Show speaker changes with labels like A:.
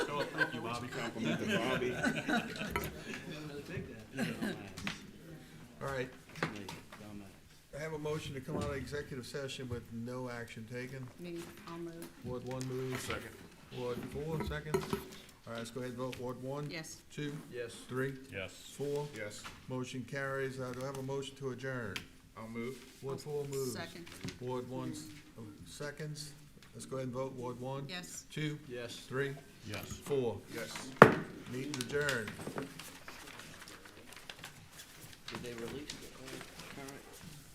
A: Bobby
B: Compliment to Bobby.
C: All right, I have a motion to come out of executive session with no action taken.
D: Move, I'll move.
C: Ward one moves. Second. Ward four, second. All right, let's go ahead and vote. Ward one?
D: Yes.
C: Two?
E: Yes.
C: Three?
A: Yes.
C: Four?
B: Yes,
C: Motion carries. Uh, do I have a motion to adjourn?
B: I'll move.
C: Ward four moves.
D: Second,
C: Ward one s- oh, seconds. Let's go ahead and vote. Ward one?
D: yes.
C: Two?
E: Yes.
C: Three?
A: Yes.
C: Four?
B: Yes.
C: Meeting adjourned.
E: Did they release the current